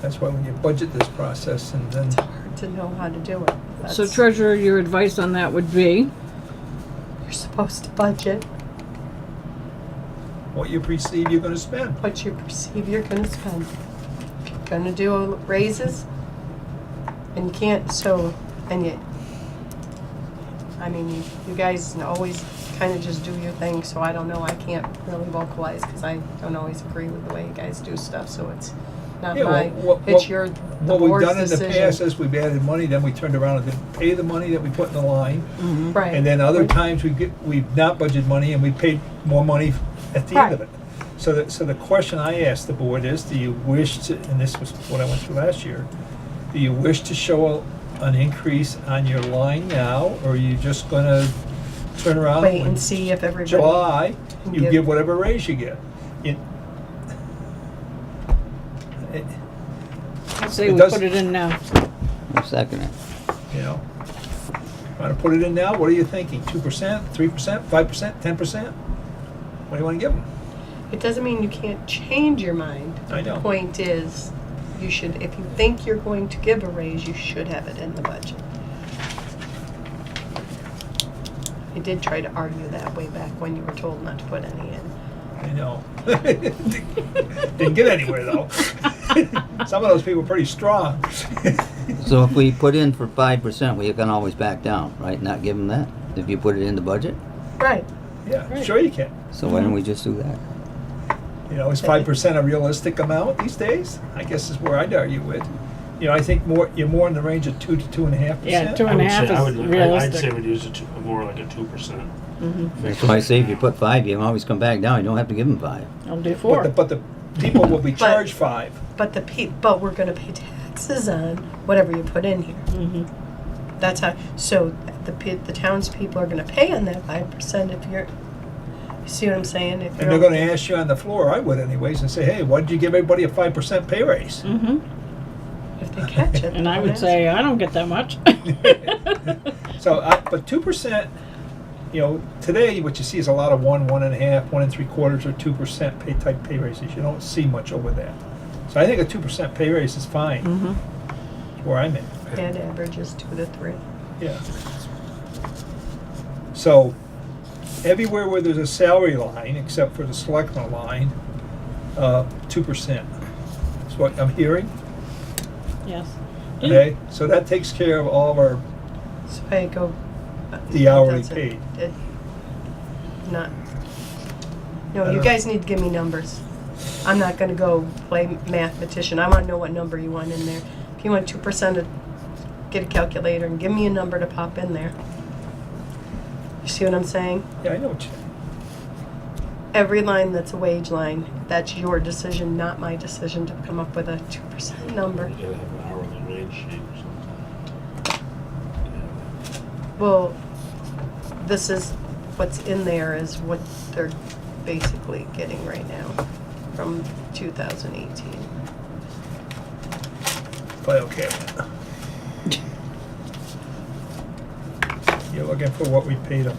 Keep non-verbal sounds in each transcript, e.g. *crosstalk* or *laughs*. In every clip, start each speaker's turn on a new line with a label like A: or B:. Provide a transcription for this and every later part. A: That's why when you budget this process and then,
B: hard to know how to do it.
C: So
B: That's-
C: treasurer, your advice on that would be?
B: You're supposed to budget
A: what you perceive you're gonna spend.
B: what you perceive you're gonna spend. If you're gonna do raises, and you can't, so, and yet, I mean, you, you guys always kinda just do your thing, so I don't know, I can't really vocalize, cause I don't always agree with the way you guys do stuff, so it's not
A: Yeah, well,
B: my,
A: what-
B: it's
A: what-
B: your, the
A: What we've
B: board's
A: done in the past
B: decision.
A: is we've added money, then we turned around and then pay the money that we put in the line.
B: Mm. Right.
A: And then other times we get, we've not budgeted money and we paid more money at the end of
B: Right.
A: it. So the, so the question I asked the board is, do you wish to, and this was what I went through last year, do you wish to show a- an increase on your line now, or are you just gonna turn around?
B: Wait
A: when
B: and see if everybody.
A: July, you
B: Give-
A: give whatever raise you get. It- it-
C: I'd say
A: It
C: we
A: does-
C: put it in now.
D: I'll second it.
A: you know. Want to put it in now? What are you thinking? Two percent, three percent, five percent, ten percent? What do you want to give them?
B: It doesn't mean you can't change your mind.
A: I know.
B: The point is, you should, if you think you're going to give a raise, you should have it in the budget. I did try to argue that way back when you were told not to put any in.
A: I know. *laughs* Didn't get anywhere though. *laughs* Some of those people are pretty strong. *laughs*
D: So if we put in for five percent, we can always back down, right? Not give them that, if you put it in the budget?
B: Right,
A: yeah, sure you can.
D: So why don't we just do that?
A: You know, is five percent a realistic amount these days? I guess is where I'd argue with. You know, I think more you're more in the range of two to two and a half
C: Yeah,
A: percent.
C: two
E: I
C: and a
E: would
C: half
E: say- I
C: is
E: would- I- I'd say
C: realistic.
E: we'd use a two, more like a two percent.
D: That's why I say if you put five, you can always come back down, you don't have to give them five.
C: I'll
A: But
C: do
A: the,
C: four.
A: but the people will be charged five.
B: but the pe, but we're gonna pay taxes on whatever you put in here.
C: Mm-hmm.
B: That's how, so the pe, the townspeople are gonna pay on that five percent if you're, you see what I'm saying? If
A: And
B: you're-
A: they're gonna ask you on the floor, I would anyways, and say, hey, why did you give everybody a five percent pay raise?
C: hmm
B: If they catch it. they're
C: *laughs* And I
B: gonna
C: would
B: ask.
C: say, I don't get
A: *laughs*
C: that much.
A: So, I, but two percent, you know, today what you see is a lot of one, one and a half, one and three quarters, or two percent pay type pay raises. You don't see much over that. So I think a two percent pay raise is fine.
C: Mm. Mm-hmm.
A: Where I'm at,
B: That averages two to three.
A: yeah. So, everywhere where there's a salary line, except for the selectman line, uh, two percent is what I'm hearing.
C: Yes.
A: Okay, so that takes care of all of our
B: So I go.
A: The hourly
B: that's it.
A: paid.
B: It- Not,
A: I
B: no, you
A: don't-
B: guys need to give me numbers. I'm not gonna go play mathematician. I wanna know what number you want in there. If you want two percent, get a calculator and give me a number to pop in there. You see what I'm saying?
A: Yeah, I know what you.
B: Every line that's a wage line, that's your decision, not my decision to come up with a two percent number.
E: You gotta have an hourly wage sheet or something.
B: Well, this is, what's in there is what they're basically getting right now from 2018.
A: Play okay. You're looking for what we paid them.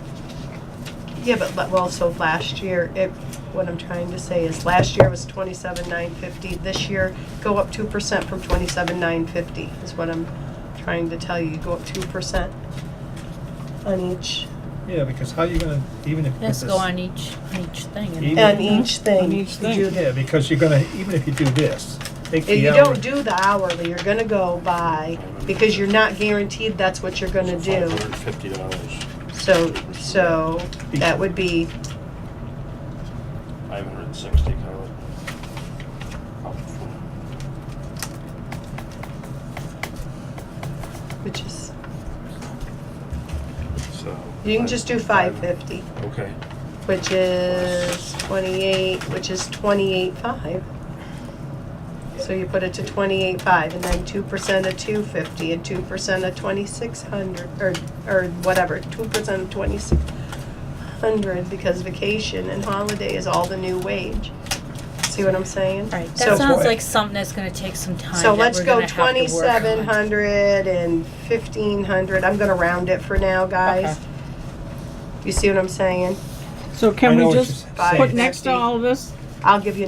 B: Yeah, but, but well, so last year, it, what I'm trying to say is last year was 27,950. This year, go up 2% from 27,950 is what I'm trying to tell you. Go up 2% on each,
A: Yeah, because how you gonna, even if.
F: Let's
A: this-
F: go on each, each thing. and-
A: Even-
B: on each thing.
C: On each
B: You
C: thing.
B: do
A: Yeah, because you're gonna, even if you do this, take
B: If
A: the
B: you
A: hour.
B: don't do the hourly, you're gonna go by, because you're not guaranteed that's what you're gonna do.
E: Five hundred and fifty dollars,
B: So, so that would be,
E: five hundred and sixty, call it. Up for-
B: which is,
E: So.
B: you can just do five fifty,
E: Okay,
B: which is twenty-eight, which is twenty-eight five. So you put it to twenty-eight five, and then two percent of two fifty, and two percent of twenty-six hundred, or, or whatever, two percent of twenty-six hundred, because vacation and holiday is all the new wage. See what I'm saying?
F: Right,
B: So-
F: that sounds
A: Right.
F: like something that's gonna take some time
B: So
F: that
B: let's
F: we're
B: go
F: gonna have to work
B: twenty-seven
F: on.
B: hundred and fifteen hundred. I'm gonna round it for now, guys. You see what I'm saying?
C: So
A: I
C: can
A: know
C: we
A: what
C: just
A: you're
B: Five
C: put
A: saying.
C: next to
B: fifty.
C: all of this?
B: I'll give you